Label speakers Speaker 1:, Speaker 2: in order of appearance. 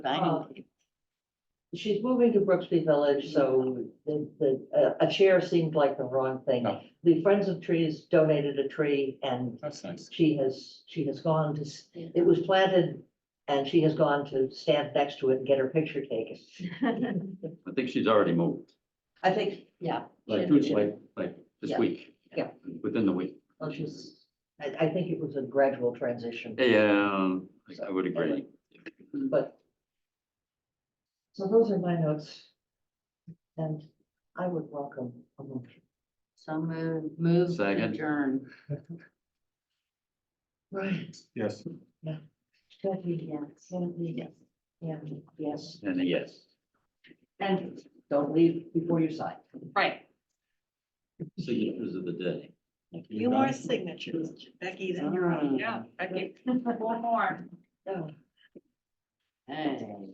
Speaker 1: Anyway,
Speaker 2: She's moving to Brooksby Village, so the, the, uh, a- a chair seemed like the wrong thing.
Speaker 3: No.
Speaker 2: The Friends of Trees donated a tree and
Speaker 3: That's nice.
Speaker 2: she has, she has gone to, s- it was planted and she has gone to stand next to it and get her picture taken.
Speaker 4: I think she's already moved,
Speaker 2: I think, yeah,
Speaker 4: like,
Speaker 1: Should be.
Speaker 4: like, like this
Speaker 2: Yeah.
Speaker 4: week.
Speaker 2: Yeah.
Speaker 4: Within the week.
Speaker 2: well, she's, I, I think it was a gradual transition,
Speaker 4: Yeah, I- I would agree.
Speaker 2: but. So those are my notes. And I would welcome a motion.
Speaker 1: So move, move to
Speaker 4: Second.
Speaker 1: adjourn.
Speaker 2: Right.
Speaker 3: Yes.
Speaker 2: Jackie,
Speaker 1: Yes.
Speaker 2: Andy,
Speaker 1: Yes.
Speaker 2: Andy, yes.
Speaker 4: And a yes.
Speaker 2: And don't leave before you sign.
Speaker 1: Right.
Speaker 4: Signatures of the day.
Speaker 5: Few more signatures, Becky, then you're on.
Speaker 1: Yeah, okay. One more.
Speaker 2: Oh.
Speaker 1: Hey.